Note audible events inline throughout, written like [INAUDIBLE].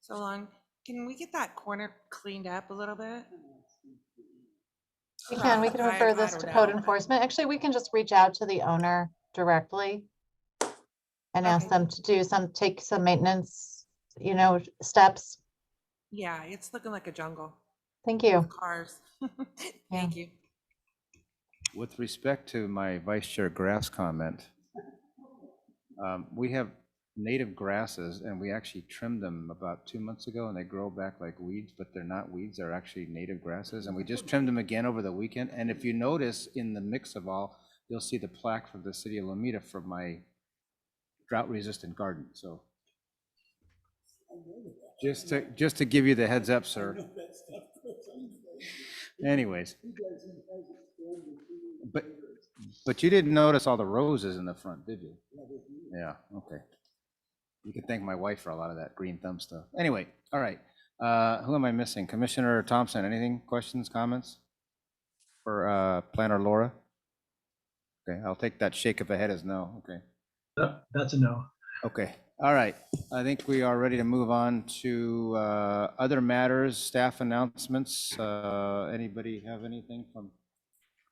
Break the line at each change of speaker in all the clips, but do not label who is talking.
so long. Can we get that corner cleaned up a little bit?
We can, we can
I-
refer
I
this
don't
to
know,
code
but-
enforcement. Actually, we can just reach out to the owner directly and ask
Okay.
them to do some, take some maintenance, you know, steps.
Yeah, it's looking like a jungle.
Thank you.
Cars. [LAUGHS] Thank you.
With respect to my Vice Chair Grass comment, um, we have native grasses, and we actually trimmed them about two months ago, and they grow back like weeds, but they're not weeds, they're actually native grasses, and we just trimmed them again over the weekend, and if you notice, in the mix of all, you'll see the plaque from the city of Lomita for my drought-resistant garden, so. Just to, just to give you the heads up, sir. Anyways. But, but you didn't notice all the roses in the front, did you? Yeah, okay. You can thank my wife for a lot of that green thumb stuff. Anyway, all right. Uh, Who am I missing? Commissioner Thompson, anything, questions, comments? For uh, Planner Laura? Okay, I'll take that shake of the head as no, okay.
Yep, That's a no.
Okay, all right. I think we are ready to move on to uh, other matters, staff announcements. Uh, Anybody have anything from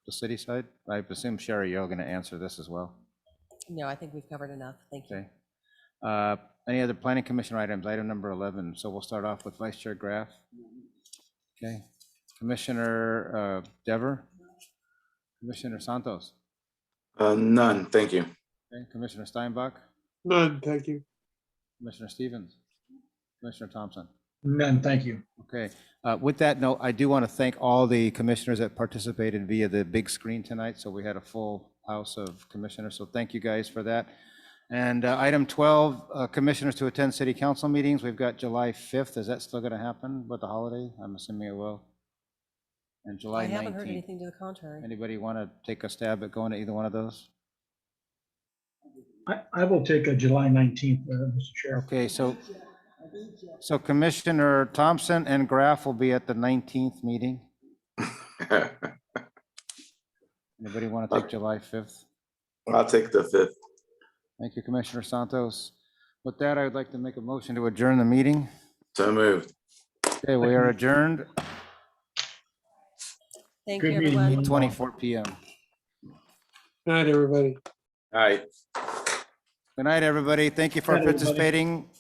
the city side? I presume Sherry, you're going to answer this as well.
No, I think we've covered enough. Thank you.
Okay. Uh, Any other planning commission items? Item number 11. So we'll start off with Vice Chair Graff. Okay. Commissioner uh, Dever? Commissioner Santos?
Uh, none, thank you. [LAUGHS]
Okay. Commissioner Steinbach?
None, thank you.
Commissioner Stevens? Commissioner Thompson?
None, thank you.
Okay, uh, with that note, I do want to thank all the commissioners that participated via the big screen tonight, so we had a full house of commissioners, so thank you guys for that. And uh, item 12, uh, commissioners to attend city council meetings, we've got July 5th, is that still going to happen with the holiday? I'm assuming it will. And
I
July
haven't heard
19th.
anything to the contrary.
Anybody want to take a stab at going to either one of those?
I, I will take a July 19th, uh, Mr. Chair.
Okay, so, so Commissioner Thompson and Graff will be at the 19th meeting. Anybody want to take
Okay.
July 5th?
I'll take the fifth.
Thank you, Commissioner Santos. With that, I would like to make a motion to adjourn the meeting.
So moved.
Okay, we are adjourned,
Thank
Good
you,
meeting.
everyone.
24 PM.
Night, everybody.
All right.
Good night, everybody. Thank you for
Good night, everybody.
participating.